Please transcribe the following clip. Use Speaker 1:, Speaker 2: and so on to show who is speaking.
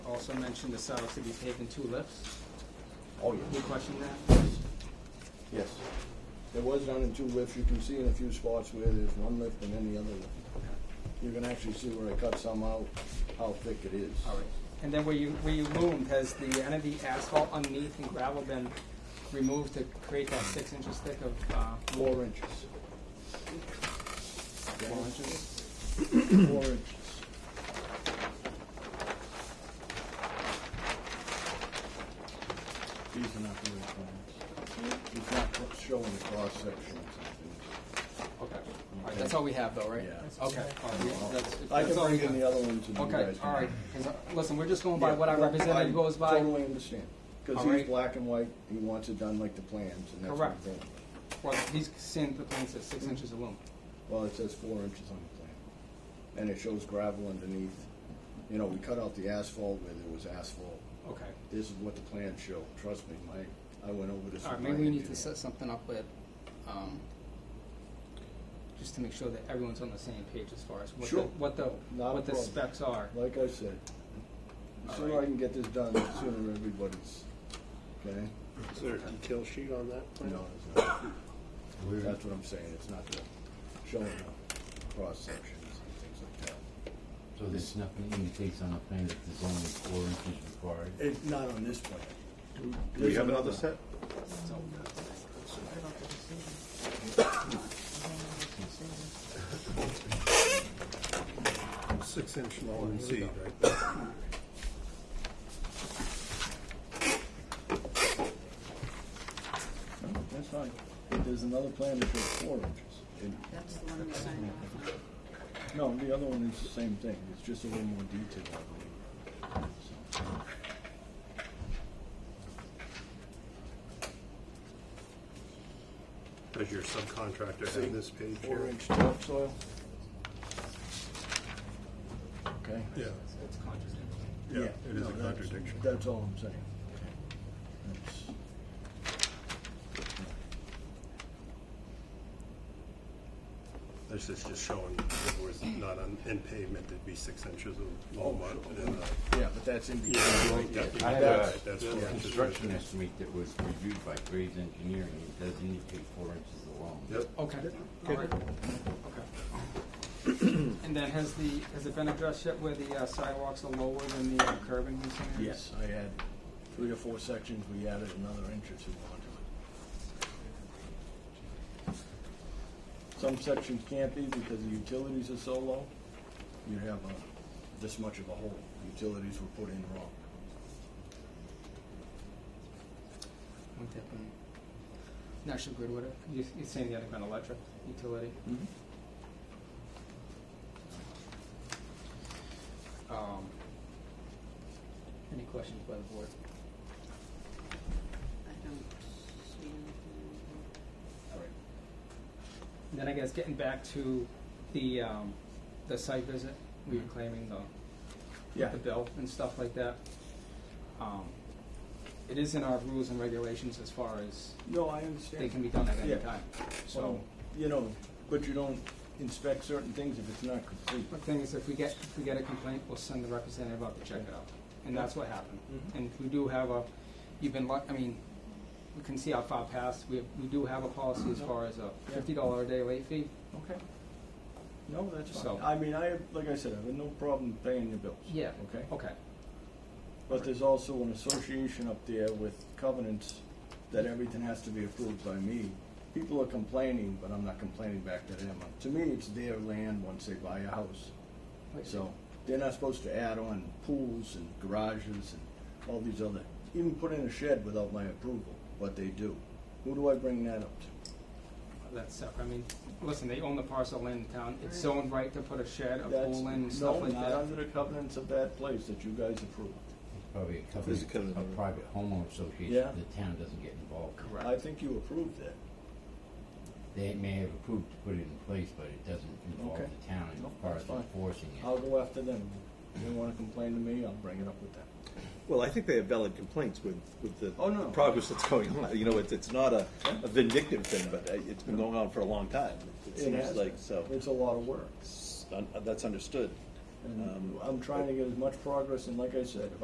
Speaker 1: also mentioned the sidewalks to be paved in two lifts.
Speaker 2: Oh,
Speaker 1: Can you
Speaker 2: yes,
Speaker 1: question that?
Speaker 2: yes. There was done in two lifts, you can see in a few spots where there's one lift and then the other lift. You can actually see where I cut some out, how thick it is.
Speaker 1: All right. And then where you, where you loomed, has the, any of the asphalt underneath and gravel been removed to create that six inches thick of, uh,
Speaker 2: Four inches.
Speaker 1: four inches?
Speaker 2: Four inches. These are not the real plans. He's not showing the cross sections.
Speaker 1: Okay. All right, that's all we have though, right?
Speaker 2: Yeah.
Speaker 1: Okay. All right, yeah, that's-
Speaker 2: I can
Speaker 1: that's all we
Speaker 2: bring in
Speaker 1: have.
Speaker 2: the other ones and you guys can.
Speaker 1: Okay, all right. 'Cause, uh, Listen, we're just going by
Speaker 2: Yeah,
Speaker 1: what our
Speaker 2: no, I
Speaker 1: representative goes by.
Speaker 2: Totally understand, because
Speaker 1: All
Speaker 2: he's
Speaker 1: right.
Speaker 2: black and white, he wants it done like the plans, and that's what
Speaker 1: Correct.
Speaker 2: he's doing.
Speaker 1: Well, he's seeing the plans at six inches of loom.
Speaker 2: Well, it says four inches on the plan, and it shows gravel underneath. You know, we cut out the asphalt where there was asphalt.
Speaker 1: Okay.
Speaker 2: This is what the plans show, trust me, my, I went over this.
Speaker 1: All right,
Speaker 2: with
Speaker 1: maybe
Speaker 2: my
Speaker 1: we need to
Speaker 2: engineer.
Speaker 1: set something up with, um, just to make sure that everyone's on the same page as far as what the,
Speaker 2: Sure.
Speaker 1: what the,
Speaker 2: Not a
Speaker 1: what the
Speaker 2: problem.
Speaker 1: specs are.
Speaker 2: Like I said, the
Speaker 1: All
Speaker 2: sooner
Speaker 1: right.
Speaker 2: I can get this done, the sooner everybody's, okay?
Speaker 3: Is there a detail sheet on that? plan?
Speaker 2: No, it's not. That's what I'm saying, it's not the showing the cross sections and things like that.
Speaker 4: So there's nothing indicates on the plan that there's only four inches required?
Speaker 2: It's not on this plan.
Speaker 3: Do we have another set?
Speaker 1: So-
Speaker 3: Six inch low and Z right there.
Speaker 2: No, That's fine. There's another plan that shows four inches. And-
Speaker 5: That's the one we signed off on.
Speaker 2: No, the other one is the same thing, it's just a little more detailed, I believe. So,
Speaker 3: Does your subcontractor have this page
Speaker 2: Four
Speaker 3: here?
Speaker 2: inch topsoil. Okay?
Speaker 3: Yeah,
Speaker 1: It's contradictory.
Speaker 3: yeah, it is
Speaker 2: no,
Speaker 3: a
Speaker 2: that's-
Speaker 3: contradiction.
Speaker 2: That's all I'm saying. That's-
Speaker 3: This is just showing if it was not on, in pavement, it'd be six inches of low mud. and, uh,
Speaker 2: Yeah, but that's in.
Speaker 3: Yeah, you're right,
Speaker 2: Yeah.
Speaker 3: that-
Speaker 4: Oh, I have
Speaker 3: that's-
Speaker 4: a-
Speaker 3: that's
Speaker 4: The
Speaker 3: four inches right
Speaker 4: construction
Speaker 3: there.
Speaker 4: estimate that was reviewed by Graves Engineering, it does indicate four inches along.
Speaker 3: Yep.
Speaker 1: Okay, all right, okay. And then has the, has it been addressed yet where the uh, sidewalks are lower than the uh, curbing in some areas?
Speaker 2: Yes, I had three or four sections, we added another inch or two onto it. Some sections can't be because the utilities are so low, you have a, this much of a hole, utilities were put in wrong.
Speaker 1: Wouldn't that be National Grid would have, you, you're saying the underground electric utility?
Speaker 2: Mm-hmm.
Speaker 1: Um, any questions by the board?
Speaker 5: I don't see anything.
Speaker 1: All right. And Then I guess getting back to the, um, the site visit, we were claiming the,
Speaker 2: Mm-hmm. Yeah.
Speaker 1: the bill and stuff like that. Um, it is in our rules and regulations as far as
Speaker 2: No, I
Speaker 1: they can
Speaker 2: understand.
Speaker 1: be done at any
Speaker 2: Yeah.
Speaker 1: time, so.
Speaker 2: So,
Speaker 1: Oh.
Speaker 2: you know, but you don't inspect certain things if it's not complete.
Speaker 1: The thing is, if we get, if we get a complaint, we'll send the representative out to check it out, and that's what happened.
Speaker 2: Mhm.
Speaker 1: And we do have a, you've been luck, I mean, we can see how far past, we, we do have a policy
Speaker 2: Mm-hmm.
Speaker 1: as far as a fifty dollar a day late fee.
Speaker 2: Okay. No, that's fine.
Speaker 1: So-
Speaker 2: I mean, I, have- like I said, I have no problem paying your bills.
Speaker 1: Yeah. Oh,
Speaker 2: Okay?
Speaker 1: Okay,
Speaker 2: But there's also an association up there with covenants that everything has to be approved by me. People are complaining, but I'm not complaining back to them. To me, it's their land once they buy a house. So they're not supposed to add on pools and garages and all these other, even put in a shed without my approval, but they do. Who do I bring that up to?
Speaker 1: that's separate, I mean, listen, they own the parcel of land in town, it's zoned right to put a shed, a
Speaker 2: That's
Speaker 1: pool in, and stuff like
Speaker 2: No, not
Speaker 1: that.
Speaker 2: under the covenants of that place that you guys approved.
Speaker 4: Probably a couple,
Speaker 3: There's a covenant.
Speaker 4: a private homeowner association,
Speaker 2: Yeah.
Speaker 4: the town doesn't get involved.
Speaker 1: Correct.
Speaker 2: I think you approved that.
Speaker 4: They may have approved to put it in place, but it doesn't involve
Speaker 2: Okay.
Speaker 4: the town
Speaker 2: No,
Speaker 4: as far
Speaker 2: that's
Speaker 4: as
Speaker 2: fine.
Speaker 4: enforcing
Speaker 2: I'll
Speaker 4: it.
Speaker 2: go after them. If they wanna complain to me, I'll bring it up with them.
Speaker 6: Well, I think they have valid complaints with, with the
Speaker 2: Oh, no.
Speaker 6: progress that's going on. You know, it's, it's not a, a vindictive thing, but uh, it's been going on for a long time. It
Speaker 2: It
Speaker 6: seems
Speaker 2: has
Speaker 6: like
Speaker 2: been.
Speaker 6: so.
Speaker 2: It's a lot of work.
Speaker 6: It's un- That's understood.
Speaker 2: And
Speaker 6: Um,
Speaker 2: I'm trying to get as much progress, and like I said, if